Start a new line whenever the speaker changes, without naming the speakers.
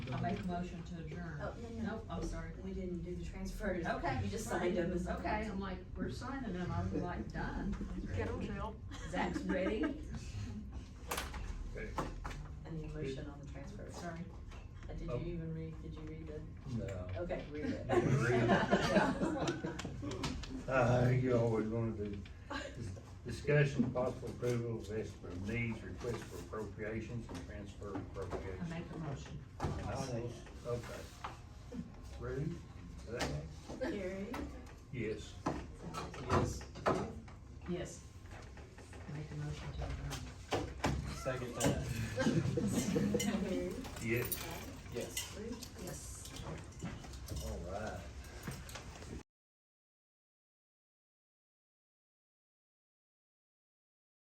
I make a motion to adjourn.
Oh, no, no.
Nope, I'm sorry.
We didn't do the transfers.
Okay.
You just signed them. as-
Okay, I'm like, we're signing them, I was like, done.
Get them, Jill.
Zach's ready,
Okay,
I need a motion on the transfers.
sorry.
Uh, Did
Oh.
you even read, did you read the,
no.
okay, read it.
You can read Uh, you always wanna do. Discussion possible approval of estimate of needs, request for appropriations and transfer
I
appropriations.
make a motion.
Okay. Ruth, Zach?
Carrie?
Yes.
Yes,
Yes. Make a motion to adjourn.
second that,
Carrie?
Yes.
yes.
Ruth? Yes.